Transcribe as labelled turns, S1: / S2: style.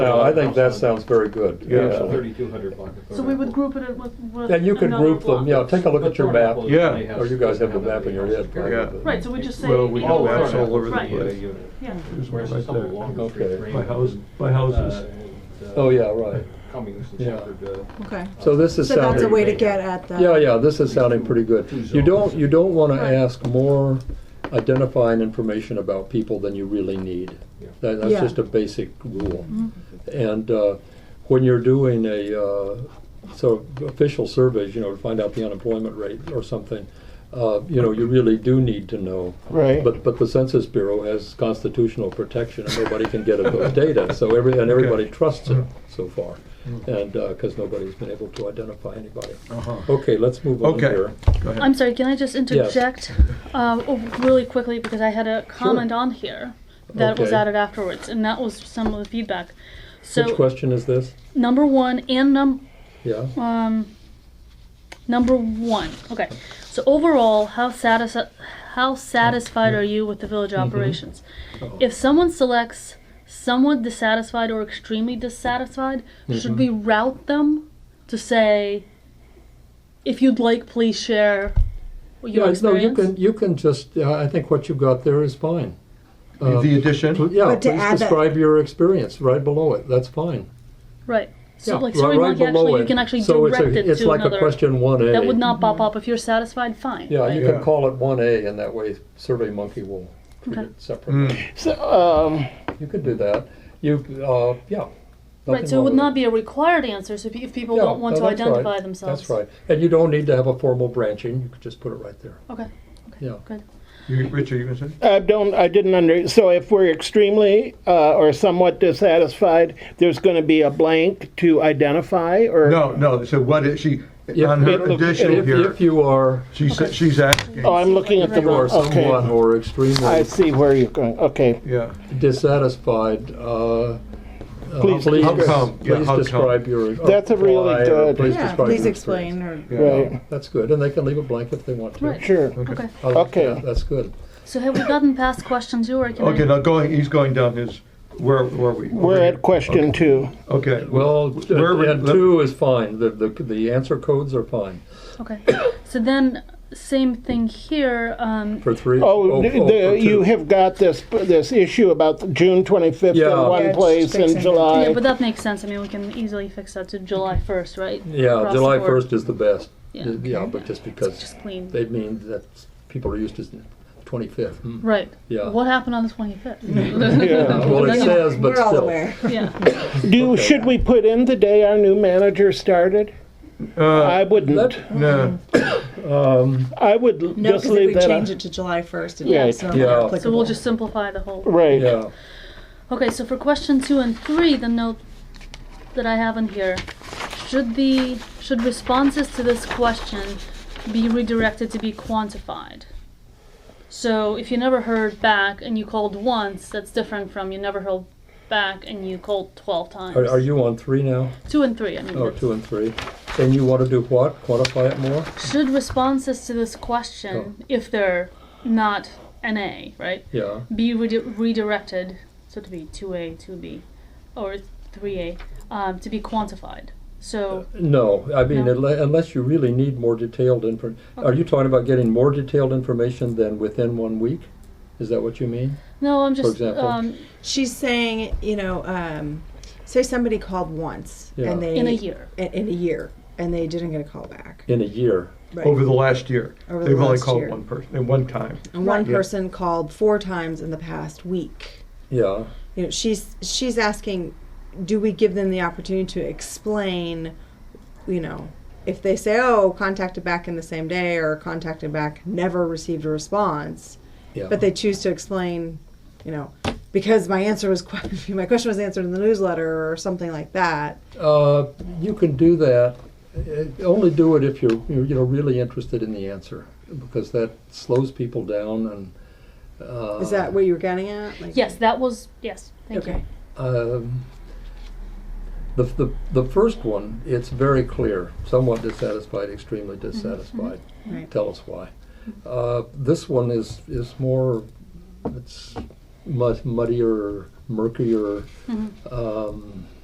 S1: Now, I think that sounds very good.
S2: Yeah.
S1: absolutely.
S3: Thirty-two hundred block of.
S4: So we would group it with, with.
S1: Then uh, you could
S4: another
S1: group them,
S4: block.
S1: yeah, take a look at your map,
S2: Yeah.
S1: or you guys have the map in your head. probably,
S2: Yeah.
S1: but-
S4: Right, so we just say.
S2: Well, we
S4: you know,
S2: do maps all over the
S4: right,
S2: place.
S4: Yeah,
S2: There's one
S3: Whereas
S2: right
S3: some
S2: there.
S3: along the
S1: Okay.
S3: street
S2: My house, my
S3: Uh,
S2: houses.
S3: and, uh,
S1: Oh, yeah, right.
S3: Cummings and
S1: Yeah.
S3: Shepherd, uh,
S5: Okay.
S1: So this is
S5: So that's a
S1: sounding.
S5: way to get at that. uh,
S1: Yeah, yeah, this is sounding pretty good. You don't, you don't wanna ask more identifying information about people than you really need.
S3: Yeah.
S1: That, that's
S5: Yeah. Mm-hmm.
S1: just a basic rule. And, uh, when you're doing a, uh, so official surveys, you know, to find out the unemployment rate or something, uh, you know, you really do need to know.
S6: Right.
S1: But, but the Census Bureau has constitutional protection and nobody can get at those data, so every, and everybody trusts it so far. And, uh cause nobody's been able to identify anybody.
S2: Uh-huh.
S1: Okay, let's move on
S2: Okay.
S1: here.
S2: Go ahead.
S7: I'm sorry, can I just interject um, oh, really quickly because I had a comment on here that was
S1: Okay.
S7: added afterwards, and that was some of the feedback. So
S1: Which question is this?
S7: number one and num
S1: Yeah,
S7: um number one. Okay, so overall, how satis- how satisfied are you with the village
S1: Mm-hmm.
S7: operations? If someone selects somewhat dissatisfied or extremely dissatisfied, should we
S1: Mm-hmm.
S7: route them to say, if you'd like, please share your
S1: yeah, no,
S7: experience?
S1: you can, you can just, uh, I think what you've got there is fine. Uh,
S2: The addition?
S1: Yeah,
S5: But to
S1: please
S5: add that-
S1: describe your experience right below it, that's fine.
S7: Right. So
S1: Yeah,
S7: like,
S1: ri-
S7: so we
S1: right
S7: might
S1: below
S7: actually, you
S1: it.
S7: can actually
S1: So it's a-
S7: direct it
S1: It's
S7: to
S1: like
S7: another.
S1: a question one A.
S7: that would not pop up if you're satisfied. Fine.
S1: Yeah,
S7: right?
S1: you can
S2: Yeah.
S1: call it one A and that way Survey Monkey will treat it
S2: Hmm.
S1: separately.
S6: So, um,
S1: You could do that. You, uh, yeah.
S7: right. So it would not be a required answer. So if if people don't want to identify themselves.
S1: That's right. And you don't need to have a formal branching. You could just put it right there.
S7: Okay.
S1: Yeah.
S7: Good.
S2: You- Richard, you gonna say?
S6: I Uh, don't, I didn't under, so if we're extremely uh, or somewhat dissatisfied, there's going to be a blank to identify or?
S2: No, no, so what is she,
S1: If-
S2: on her
S1: if-
S2: additional
S1: If,
S2: here,
S1: if you are,
S2: she's, she's asking,
S6: Oh, I'm looking at
S1: if
S6: the
S1: you are
S6: wrong,
S1: someone
S6: okay.
S1: or
S6: I
S1: extremely
S6: see where you're going, okay.
S2: yeah.
S1: dissatisfied, uh, uh,
S6: Please
S1: please,
S6: How
S2: come? Yeah,
S1: please
S2: how come?
S1: describe your. or
S6: That's a really
S1: apply or
S6: good-
S1: Please
S5: Yeah,
S1: describe your
S5: please
S1: experience.
S5: explain or,
S2: yeah.
S6: Right,
S1: That's good, and they can leave a blank if they want to.
S7: Right.
S6: sure.
S7: Okay.
S1: I like
S6: Okay.
S1: that. That's good.
S7: So have we gotten past questions you or can
S2: Okay,
S7: I,
S2: now going, he's going down his, where, where are we?
S6: We're at question two.
S2: Okay, well,
S1: Well,
S2: Where we-
S1: and two is fine. The, the, the answer codes are fine
S7: Okay. So then, same thing here. Um,
S1: for three.
S6: Oh,
S1: oh,
S6: the-
S1: oh, for
S6: the- you
S1: two.
S6: have got this, this issue about June 25th
S1: Yeah.
S6: in
S1: Yeah,
S6: one
S5: it's
S6: place
S5: fixing
S6: and
S5: it.
S7: yeah,
S6: July.
S7: but that makes sense. I mean, we can easily fix that to July first, right?
S1: Yeah,
S7: Across the
S1: July
S7: board.
S1: first is the best.
S7: Yeah.
S1: Yeah, but just because
S7: Just clean.
S1: they mean that people are used to twenty-fifth.
S2: Hmm.
S7: right.
S1: Yeah.
S7: What happened on the twenty fifth?
S6: Yeah.
S1: Well, it
S7: Yeah.
S1: says, but
S5: we're all
S1: still.
S5: aware.
S7: yeah.
S6: Do, should we put in the day our new manager started? I
S2: uh,
S6: wouldn't.
S1: That-
S2: no,
S6: I would
S5: No,
S6: just
S5: because if
S6: leave
S5: we
S6: that.
S5: change
S6: out.
S5: it to July first, it
S6: Yeah.
S5: becomes not
S1: Yeah.
S5: applicable.
S7: So we'll just simplify the whole.
S6: Right.
S1: Yeah,
S7: Okay, so for question two and three, the note that I have in here, should the should responses to this question be redirected to be quantified? So if you never heard back and you called once, that's different from you never heard back and you called twelve times.
S1: are, are you on three now?
S7: two and three? I mean,
S1: Oh,
S7: that's-
S1: two and three. And you want to do what? Quantify it more?
S7: should responses to this question,
S1: Oh.
S7: if they're not NA, right,
S1: Yeah.
S7: be redi- redirected, so to be 2A, 2B, or 3A, um, to be quantified. So,
S1: Uh, No, I mean,
S7: No.
S1: unle- unless you really need more detailed info, are you talking about getting more detailed information than within one week? Is that what you mean?
S7: no, I'm just,
S1: example?
S7: um,
S5: She's saying, you know, um, say somebody called once
S1: Yeah.
S5: and they
S7: in a year.
S5: in, in a year and they didn't get a call back.
S1: In a year?
S5: Right.
S2: over the last year.
S5: Over the
S2: They've only
S5: last
S2: called
S5: year.
S2: one person, and one time.
S5: and one person called four times in the past week.
S1: Yeah.
S5: You know, she's she's asking, do we give them the opportunity to explain, you know, if they say, oh, contacted back in the same day or contacted back never received a response,
S1: Yeah.
S5: but they choose to explain, you know, because my answer was que- my question was answered in the newsletter or something like that.
S1: Uh, you can do that. Uh, Only do it if you're, you're, you know, really interested in the answer, because that slows people down and. Uh,
S5: Is that what you were getting at? Like,
S7: Yes, that was, yes, thank
S5: Okay.
S1: Um, the, the, the first one, it's very clear, somewhat dissatisfied, extremely dissatisfied.
S5: Right.
S1: Tell us why. Uh, this one is, is more, it's mud- muddier, murkier um,